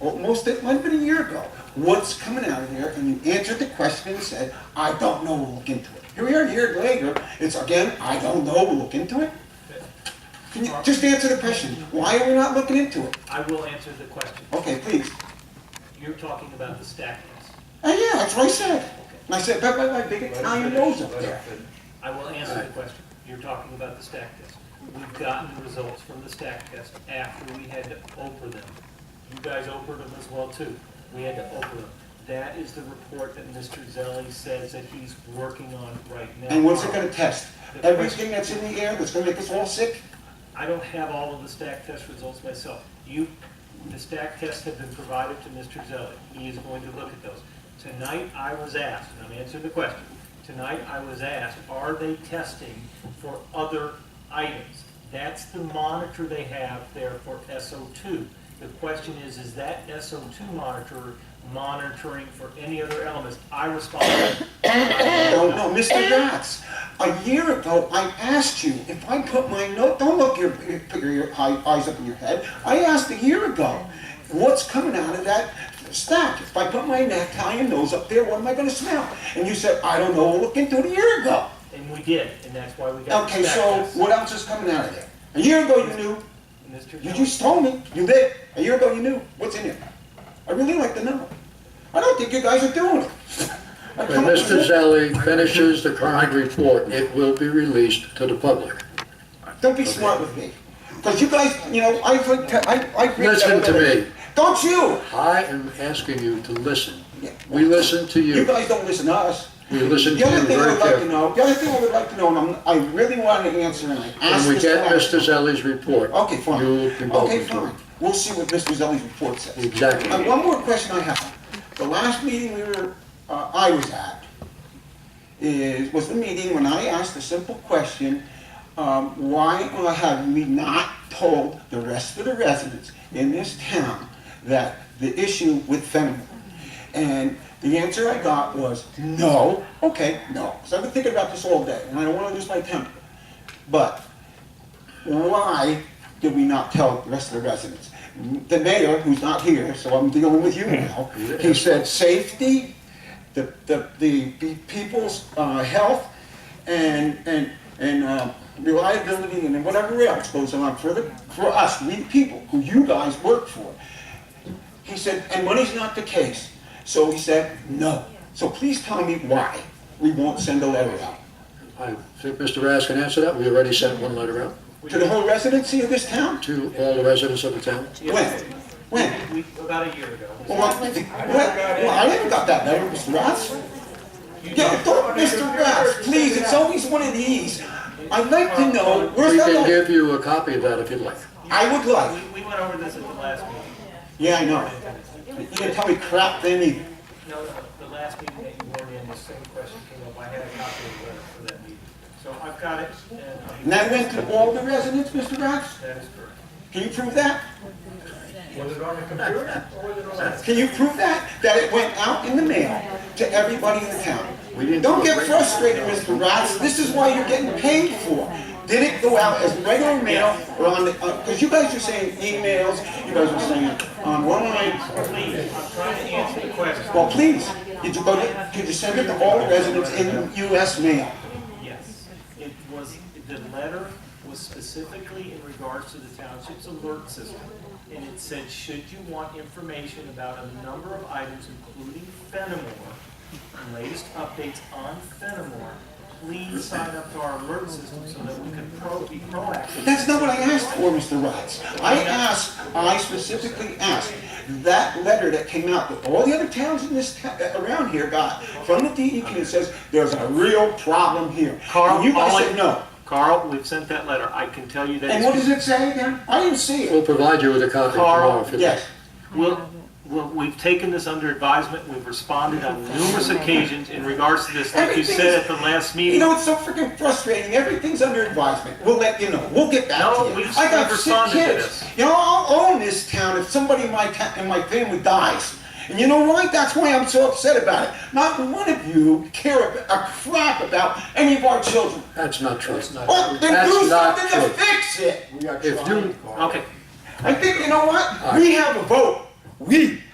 almost, it might have been a year ago, what's coming out of there, and you answered the question and said, I don't know, we'll look into it. Here we are, a year later, it's again, I don't know, we'll look into it. Can you just answer the question, why are we not looking into it? I will answer the question. Okay, please. You're talking about the stack house. And yeah, that's what I said. And I said, that by my big Italian nose up there. I will answer the question. You're talking about the stack test. We've gotten the results from the stack test after we had to oper them. You guys opered them as well too. We had to oper them. That is the report that Mr. Zelli says that he's working on right now. And what's it gonna test? Everything that's in the air that's gonna make us all sick? I don't have all of the stack test results myself. You, the stack tests have been provided to Mr. Zelli. He is going to look at those. Tonight, I was asked, and I'm answering the question. Tonight, I was asked, are they testing for other items? That's the monitor they have there for SO2. The question is, is that SO2 monitor monitoring for any other elements? I responded, I No, Oh, no, Mr. Yachts, a year ago, I asked you if I put my note, don't look your, put your eye- eyes up in your head. I asked a year ago, what's coming out of that stack? If I put my Italian nose up there, what am I gonna smell? And you said, I don't know, we'll look into it a year ago. and we did, and that's why we got Okay, the stack so test. what else is coming out of there? A year ago, you knew, Mr. You Zelli- just told me, you did, a year ago you knew, what's in there? I really like to know. I don't think you guys are doing it. I When come up Mr. with- Zelli finishes the current report, it will be released to the public. Don't be smart with me, because you guys, you know, I've, like te- I, I've. read Listen to everything. me. Don't you? I am asking you to listen. We listen to You you. guys don't listen to us. We listen to The other you thing I very would like to carefully. know, the other thing I would like to know, and I'm, I really want an answer, and I asked When we this get last- Mr. Zelli's report, Okay, fine. you will be Okay, welcome to fine. it. We'll see what Mr. Zelli's report says. Exactly. And one more question I have. The last meeting we were, uh, I was at, is, was the meeting when I asked a simple question, um, why uh, have we not told the rest of the residents in this town that the issue with fentanyl? And the answer I got was, no, okay, no. So I've been thinking about this all day, and I don't want to lose my temper. But why did we not tell the rest of the residents? The mayor, who's not here, so I'm dealing with you now, he said safety, the, the, the the people's uh, health, and, and, and uh, reliability, and then whatever else goes on for the, for us, we the people, who you guys work for. He said, and money's not the case. So he said, no. So please tell me why we won't send a letter out. I think Mr. Rath can answer that. We already sent one letter out To the whole residency of this town? to all the residents of the town. When? When? We, about a year ago. Well, what- well, I haven't got that letter, Mr. Ross. Yeah, don't, Mr. Ross, please, it's always one of these. I'd like to know, where's We that can letter? give you a copy of that if you'd like. I would like, We, we went over this at the last meeting. yeah, I know. You can tell me crap then either. No, no, the last meeting that you weren't in, the same question came up. I had a copy of the letter for that meeting. So I've got it, and I'll be- And that went to all the residents, Mr. Ross? that is correct. Can you prove that? Can you prove that? That it went out in the mail to everybody in the town? We didn't Don't do it get right. frustrated, Mr. Rotz, this is why you're getting paid for. Did it go out as regular mail or on the, because you guys are saying emails, you guys are saying on online. Please, I'm trying to answer the question. Well, please, did you go to, did you send it to all the residents in US mail? Yes, it was, the letter was specifically in regards to the township's alert system. And it said, should you want information about a number of items, including Fenimore, and latest updates on Fenimore, please sign up to our alert system so that we can pro, be proactive. That's not what I asked for, Mr. Rotz. I asked, I specifically asked, that letter that came out that all the other towns in this, ta- uh, around here got from the DEP that says, there's a real problem here. And you guys said no. Carl, we've sent that letter. I can tell you And what does it say again? I didn't see it. We'll provide you with a copy Carl, tomorrow if you'd like. Yes. Well, well, we've taken this under advisement, we've responded on numerous occasions in regards to this, like you said at the last You meeting. know, it's so freaking frustrating. Everything's under advisement. We'll let you know. We'll get back No, to you. we've- I got we've sick responded to kids. this. You know, I'll own this town if somebody in my town, in my family dies. And you know why? That's why I'm so upset about it. Not one of you care ab- a crap about any of our children. That's not true. Well, Oh, then do That's not something to true. fix it. If you, Okay, I think you know what? right. We have a vote. We